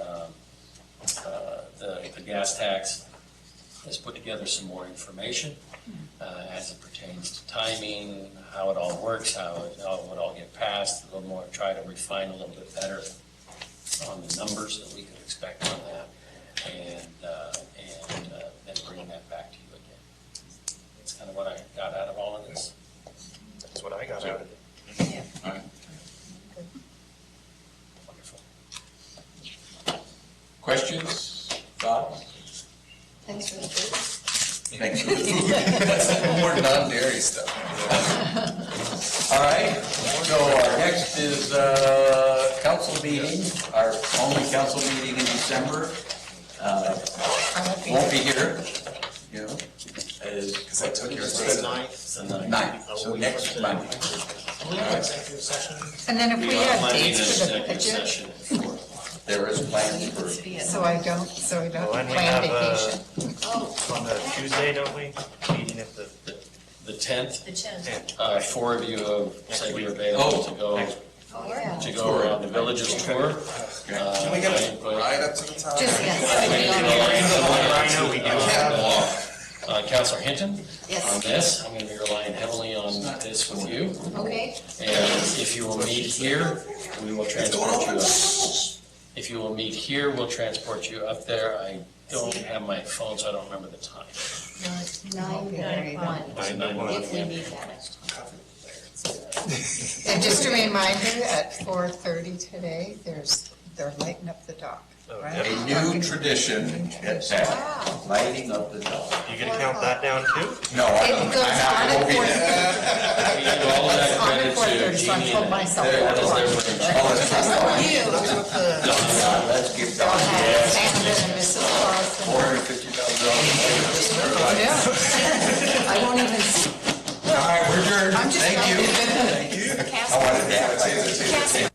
um, uh, the gas tax, has put together some more information uh, as it pertains to timing, how it all works, how it all would all get passed, a little more, try to refine a little bit better on the numbers that we could expect on that, and, uh, and uh, then bring that back to you again. That's kind of what I got out of all of this. That's what I got out of it. Wonderful. Questions, thoughts? Thanks for the food. Thanks for the food. More non-dairy stuff. All right, so our next is uh, council meeting, our only council meeting in December. Uh, Won't be here, you know, is Because I took your It's the state. ninth. So now- nine, so next Monday. We have executive session. And then if we have Monday, dates for the executive budget, session. There is plans for, so I don't, so I don't Well, and we plan have, uh, vacation. on the Tuesday, don't we? Meeting at the, The tenth, The yeah. tenth. uh, four of you have said you're available to go, Oh, Yeah. yeah. to go around the villages tour. Can we get it right up to the top? Just, yes. I know we do have, Uh, Counselor Hinton? Yes. On this, I'm gonna be relying heavily on this with you, Okay, and if you will meet here, we will transport you up. If you will meet here, we'll transport you up there. I don't have my phone, so I don't remember the time. nine, nine, one, Nine, nine, one. if we need that. And just a reminder, at four thirty today, there's, they're lighting up the dock, Oh, right? a new tradition at that, lighting up the dog. you gonna count that down too? No, I It don't, goes I have, I on won't be there. at We give all of that four, on at credit four to thirty, so I Jeannie told and myself. There it is, four. Oh, that's right. Yeah, Let's give They'll Don have Sandra and Mrs. Carlson. four hundred fifty thousand dollars. Yeah. I won't even see. All right, we're adjourned, I'm just thank you. thank I wanted to have a taser, taser, taser.